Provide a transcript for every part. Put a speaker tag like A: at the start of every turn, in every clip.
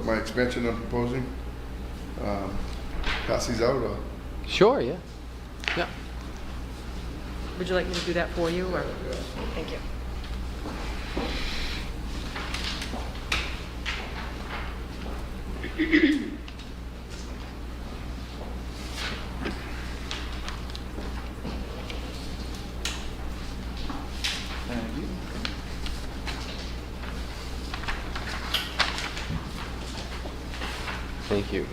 A: my expansion I'm proposing, um, pass these out or?
B: Sure, yeah. Yeah.
C: Would you like me to do that for you, or? Thank you.
B: Thank you.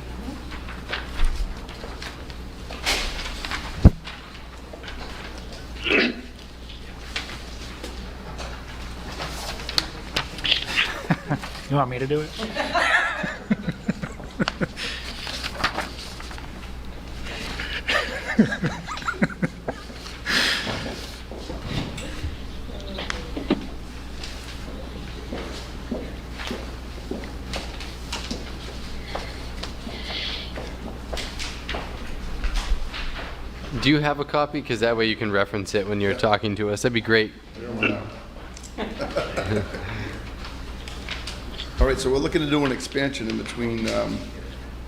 D: You want me to do it?
B: Do you have a copy? Because that way you can reference it when you're talking to us. That'd be great.
A: All right, so we're looking to do an expansion in between um,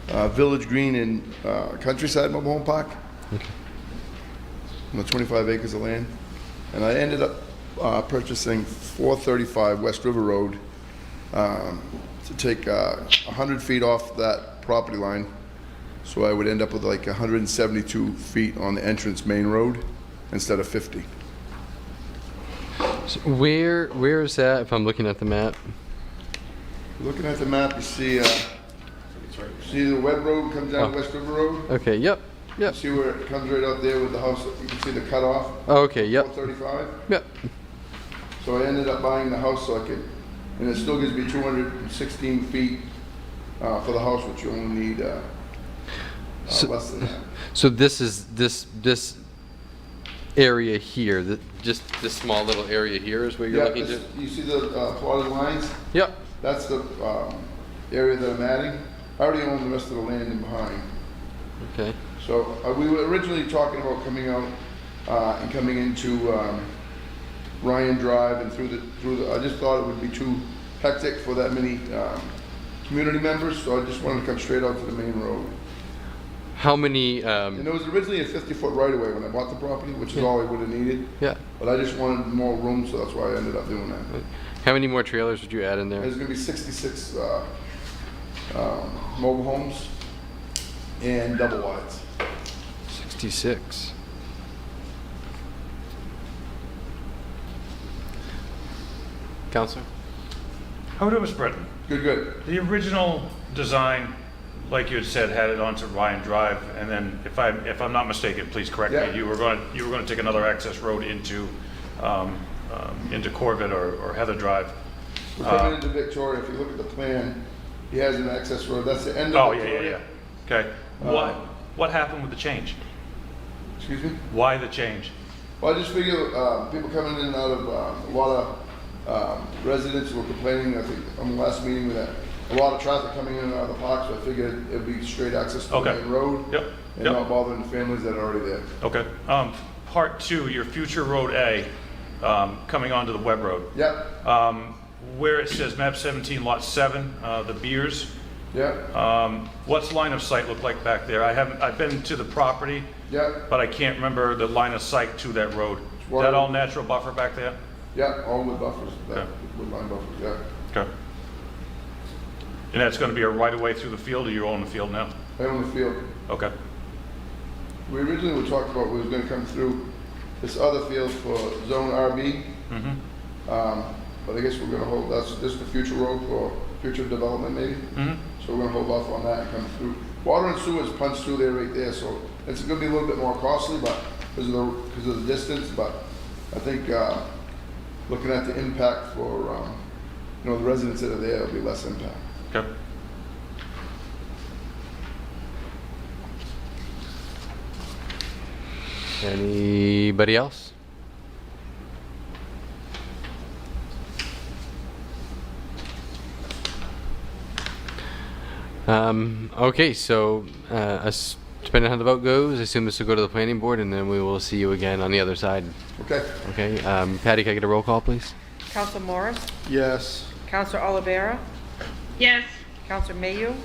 A: uh, Village Green and uh, Countryside Mobile Home Park. On the 25 acres of land. And I ended up uh, purchasing 435 West River Road um, to take uh, 100 feet off that property line. So I would end up with like 172 feet on the entrance main road instead of 50.
B: So where where is that? If I'm looking at the map.
A: Looking at the map, you see, uh, see the wet road comes down
B: Oh.
A: West River Road?
B: Okay. Yep. Yep.
A: See where it comes right out there with the house, you can see the cutoff,
B: Okay. Yep.
A: 135?
B: Yep.
A: So I ended up buying the house so I could, and it still gives me 216 feet uh, for the house, which you only need uh, uh,
B: So-
A: less than that.
B: So this is this this area here. That just this small little area here is where you're
A: Yeah,
B: looking
A: this-
B: to.
A: you see the uh, plotted lines?
B: Yep.
A: That's the um, area that I'm adding. I already own the rest of the land in behind.
B: Okay.
A: So uh, we were originally talking about coming out uh, and coming into um, Ryan Drive and through the, through the, I just thought it would be too hectic for that many um, community members, so I just wanted to come straight out to the main road.
B: How many?
A: And
B: Um,
A: it was originally a 50-foot right-of-way when I bought the property, which is all I would have needed,
B: yeah.
A: but I just wanted more room, so that's why I ended up doing that.
B: How many more trailers would you add in there?
A: There's gonna be 66 uh, um, mobile homes and double wides.
B: Sixty-six. Counselor.
E: How it was Britain.
A: Good, good.
E: The original design, like you had said, had it onto Ryan Drive, and then, if I'm, if I'm not mistaken, please correct
A: Yeah.
E: me, you were going, you were going to take another access road into, um, um, into Corbett or or Heather Drive.
A: We're coming into Victoria, if you look at the plan, he has an access road, that's the end
E: Oh,
A: of
E: yeah, yeah, yeah.
A: Victoria.
E: Okay. What, what happened with the change?
A: Excuse me?
E: Why the change?
A: Well, I just figure, uh, people coming in and out of, um, a lot of, um, residents were complaining, I think, on the last meeting with that, a lot of traffic coming in and out of the park, so I figured it'd be straight access to the
E: Okay.
A: main road.
E: Yep,
A: And
E: yep.
A: not bothering the families that are already there.
E: Okay. Um, Part two, your future Road A, um, coming onto the Web Road.
A: Yep,
E: Um, Where it says map 17, lot 7, uh, the beers,
A: yep,
E: Um, What's line of sight look like back there? I haven't, I've been to the property,
A: yep,
E: but I can't remember the line of sight to that road. Is
A: water.
E: that all natural buffer back there?
A: yep, all with buffers, that,
E: Okay.
A: with line buffers, yeah.
E: Okay. And that's going to be a right-of-way through the field, or you own the field now?
A: I own the field.
E: Okay.
A: We originally were talking about we was gonna come through this other field for zone RB. Um, But I guess we're gonna hold, that's, this is the future road for future development maybe.
E: Mm-hmm.
A: So we're gonna hold off on that and come through. Water and sewer is punched through there right there, so it's gonna be a little bit more costly, but, because of the, because of the distance, but I think, uh, looking at the impact for, um, you know, the residents that are there, it'll be less impact.
E: Okay.
B: Anybody else? Um, okay, so uh, us- depending on how the vote goes, I assume this will go to the planning board, and then we will see you again on the other side.
A: Okay?
B: Okay, um, Patty, can I get a roll call, please?
C: Counsel Morris,
A: Yes.
C: Counsel Olivera,
F: Yes.
C: Counselor Mayu?